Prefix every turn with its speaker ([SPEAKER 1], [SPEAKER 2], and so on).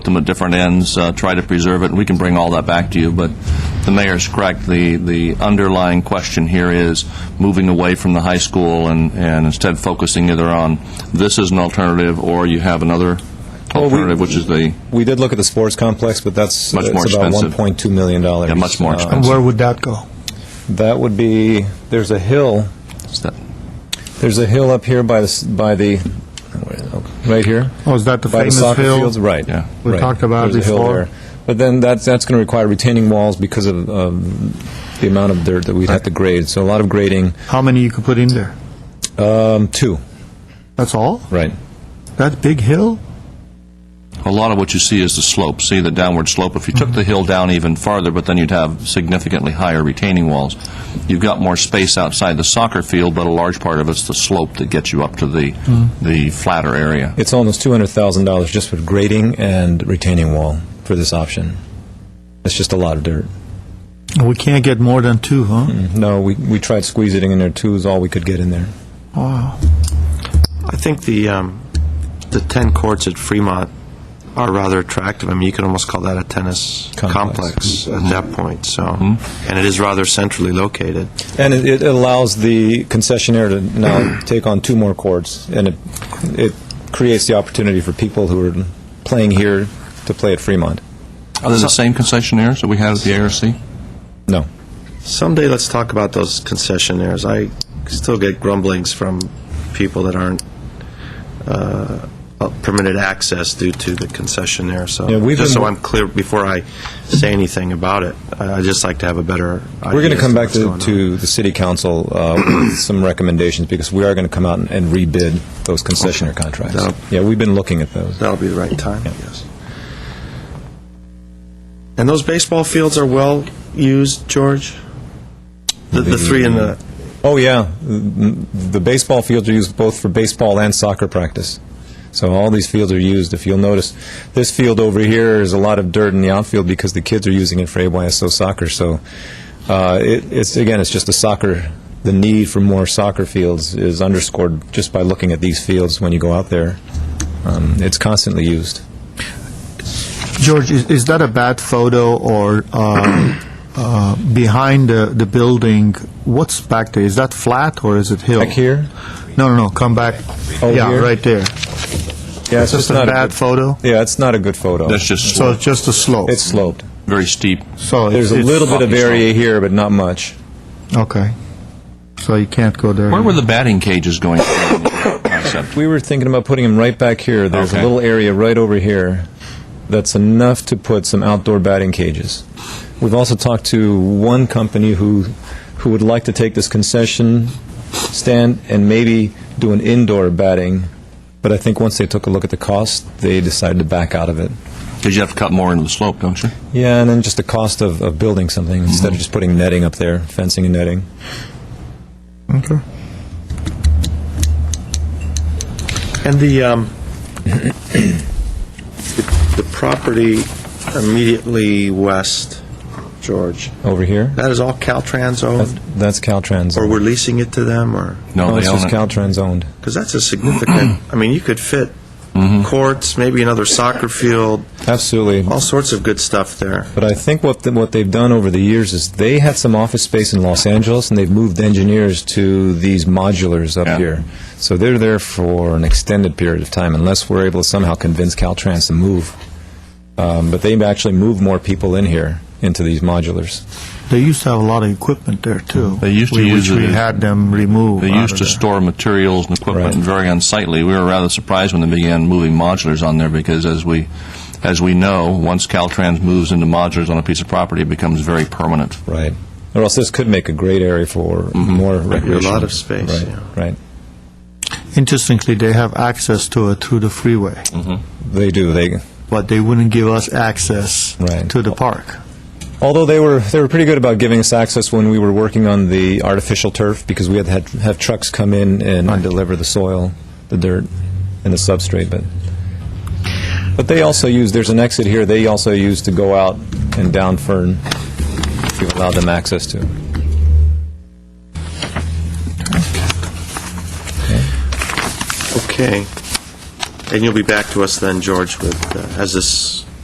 [SPEAKER 1] them at different ends, uh, try to preserve it, and we can bring all that back to you, but the mayor's correct. The, the underlying question here is moving away from the high school and, and instead focusing either on this is an alternative, or you have another
[SPEAKER 2] Well, we-
[SPEAKER 1] alternative, which is the,
[SPEAKER 2] We did look at the sports complex, but that's
[SPEAKER 1] Much
[SPEAKER 2] it's
[SPEAKER 1] more
[SPEAKER 2] about
[SPEAKER 1] expensive.
[SPEAKER 2] $1.2 million.
[SPEAKER 1] Yeah, much more
[SPEAKER 2] Uh,
[SPEAKER 1] expensive.
[SPEAKER 3] Where would that go?
[SPEAKER 2] That would be, there's a hill,
[SPEAKER 1] is that-
[SPEAKER 2] there's a hill up here by the, s- by the, right here?
[SPEAKER 3] Oh, is that the
[SPEAKER 2] By the
[SPEAKER 3] famous
[SPEAKER 2] soccer
[SPEAKER 3] hill?
[SPEAKER 2] fields, right.
[SPEAKER 1] Yeah.
[SPEAKER 3] We
[SPEAKER 2] right.
[SPEAKER 3] talked about it
[SPEAKER 2] There's a hill
[SPEAKER 3] before.
[SPEAKER 2] there. But then that's, that's going to require retaining walls because of um, the amount of dirt that we'd have to grade. So a lot of grading.
[SPEAKER 3] How many you could put in there?
[SPEAKER 2] Um, Two,
[SPEAKER 3] That's all?
[SPEAKER 2] right.
[SPEAKER 3] That big hill?
[SPEAKER 1] a lot of what you see is the slope, see the downward slope. If you took the hill down even farther, but then you'd have significantly higher retaining walls. You've got more space outside the soccer field, but a large part of it's the slope that gets you up to the,
[SPEAKER 2] Mm-hmm.
[SPEAKER 1] the flatter area.
[SPEAKER 2] It's almost $200,000 just for grading and retaining wall for this option. It's just a lot of dirt.
[SPEAKER 3] We can't get more than two, huh?
[SPEAKER 2] No, we, we tried squeezing it in there, two is all we could get in there.
[SPEAKER 3] Wow.
[SPEAKER 4] I think the, um, the 10 courts at Fremont are rather attractive. I mean, you could almost call that a tennis
[SPEAKER 2] Complex. Mm-hmm.
[SPEAKER 4] complex at that point, so. And it is rather centrally located.
[SPEAKER 2] And it, it allows the concessionaire to now take on two more courts, and it, it creates the opportunity for people who are playing here to play at Fremont.
[SPEAKER 1] Are they the same concessionaires that we had at the ARC?
[SPEAKER 2] No.
[SPEAKER 4] Someday, let's talk about those concessionaires. I still get grumblings from people that aren't uh, permitted access due to the concessionaire, so.
[SPEAKER 2] Yeah, we've
[SPEAKER 4] Just
[SPEAKER 2] been-
[SPEAKER 4] so I'm clear, before I say anything about it, I- I'd just like to have a better idea.
[SPEAKER 2] We're going
[SPEAKER 4] as
[SPEAKER 2] to come back
[SPEAKER 4] what's
[SPEAKER 2] to,
[SPEAKER 4] going on.
[SPEAKER 2] to the city council uh, with some recommendations, because we are going to come out and- and rebid those concessionaire contracts.
[SPEAKER 4] That'll-
[SPEAKER 2] Yeah, we've been looking at those.
[SPEAKER 4] That'll be the right time, I guess. And those baseball fields are well used, George? The, the three in the,
[SPEAKER 2] Oh, yeah. Mm, The baseball fields are used both for baseball and soccer practice. So all these fields are used. If you'll notice, this field over here is a lot of dirt in the outfield because the kids are using it for AYSO soccer. So uh, it, it's, again, it's just a soccer, the need for more soccer fields is underscored just by looking at these fields when you go out there. Um, It's constantly used.
[SPEAKER 3] George, is, is that a bad photo or uh, uh, behind the, the building? What's back there? Is that flat or is it hill?
[SPEAKER 2] Back here?
[SPEAKER 3] No, no, no. Come back.
[SPEAKER 2] Oh,
[SPEAKER 3] yeah,
[SPEAKER 2] here?
[SPEAKER 3] right there.
[SPEAKER 2] Yeah,
[SPEAKER 3] It's just a bad
[SPEAKER 2] good-
[SPEAKER 3] photo.
[SPEAKER 2] Yeah, it's not a good photo.
[SPEAKER 1] That's just
[SPEAKER 3] So it's just a slope.
[SPEAKER 2] It's sloped.
[SPEAKER 1] very steep.
[SPEAKER 3] so it's-
[SPEAKER 2] There's a
[SPEAKER 3] it's-
[SPEAKER 2] little bit of
[SPEAKER 1] sloppy slope.
[SPEAKER 2] area here, but not much.
[SPEAKER 3] Okay. So you can't go there.
[SPEAKER 1] Where were the batting cages going in the concept?
[SPEAKER 2] We were thinking about putting them right back here. There's
[SPEAKER 1] Okay.
[SPEAKER 2] a little area right over here that's enough to put some outdoor batting cages. We've also talked to one company who who would like to take this concession stand and maybe do an indoor batting, but I think once they took a look at the cost, they decided to back out of it.
[SPEAKER 1] Because you have to cut more into the slope, don't you?
[SPEAKER 2] Yeah, and then just the cost of, of building something instead of just putting netting up there, fencing and netting.
[SPEAKER 3] Okay.
[SPEAKER 4] and the, um, the property immediately west, George,
[SPEAKER 2] Over here,
[SPEAKER 4] that is all Caltrans
[SPEAKER 2] that's,
[SPEAKER 4] owned?
[SPEAKER 2] that's Caltrans.
[SPEAKER 4] Or we're leasing it to them, or?
[SPEAKER 1] No,
[SPEAKER 2] no,
[SPEAKER 1] they
[SPEAKER 2] it's just
[SPEAKER 1] own it.
[SPEAKER 2] Caltrans owned.
[SPEAKER 4] Because that's a significant, I mean, you could fit courts, maybe another soccer field,
[SPEAKER 2] Absolutely.
[SPEAKER 4] all sorts of good stuff there.
[SPEAKER 2] But I think what, the- what they've done over the years is they had some office space in Los Angeles, and they've moved engineers to these modulars
[SPEAKER 1] Yeah.
[SPEAKER 2] up here. So they're there for an extended period of time, unless we're able to somehow convince Caltrans to move. Um, But they've actually moved more people in here, into these modulars.
[SPEAKER 3] They used to have a lot of equipment there, too.
[SPEAKER 1] They used to
[SPEAKER 3] we-
[SPEAKER 1] use
[SPEAKER 3] Which
[SPEAKER 1] it
[SPEAKER 3] we
[SPEAKER 1] as-
[SPEAKER 3] had them remove.
[SPEAKER 1] They
[SPEAKER 3] out
[SPEAKER 1] used
[SPEAKER 3] of
[SPEAKER 1] to
[SPEAKER 3] there.
[SPEAKER 1] store materials and equipment
[SPEAKER 2] Right.
[SPEAKER 1] and very unsightly. We were rather surprised when they began moving modulars on there because as we, as we know, once Caltrans moves into modulars on a piece of property, it becomes very permanent.
[SPEAKER 2] Right. Or else this could make a great area for more
[SPEAKER 4] be Mm-hmm. a
[SPEAKER 2] recreation.
[SPEAKER 4] lot of space,
[SPEAKER 2] Right,
[SPEAKER 4] yeah.
[SPEAKER 2] Right.
[SPEAKER 3] Interestingly, they have access to it through the freeway,
[SPEAKER 1] Mm-hmm.
[SPEAKER 2] They do. They,
[SPEAKER 3] but they wouldn't give us access
[SPEAKER 2] Right.
[SPEAKER 3] to the park.
[SPEAKER 2] Although they were they were pretty good about giving us access when we were working on the artificial turf because we had to had, have trucks come in and deliver the soil, the dirt, and the substrate. But but they also use there's an exit here. They also use to go out and down Fern. If you allow them access to.
[SPEAKER 4] Okay. And you'll be back to us then, George, with, uh, as this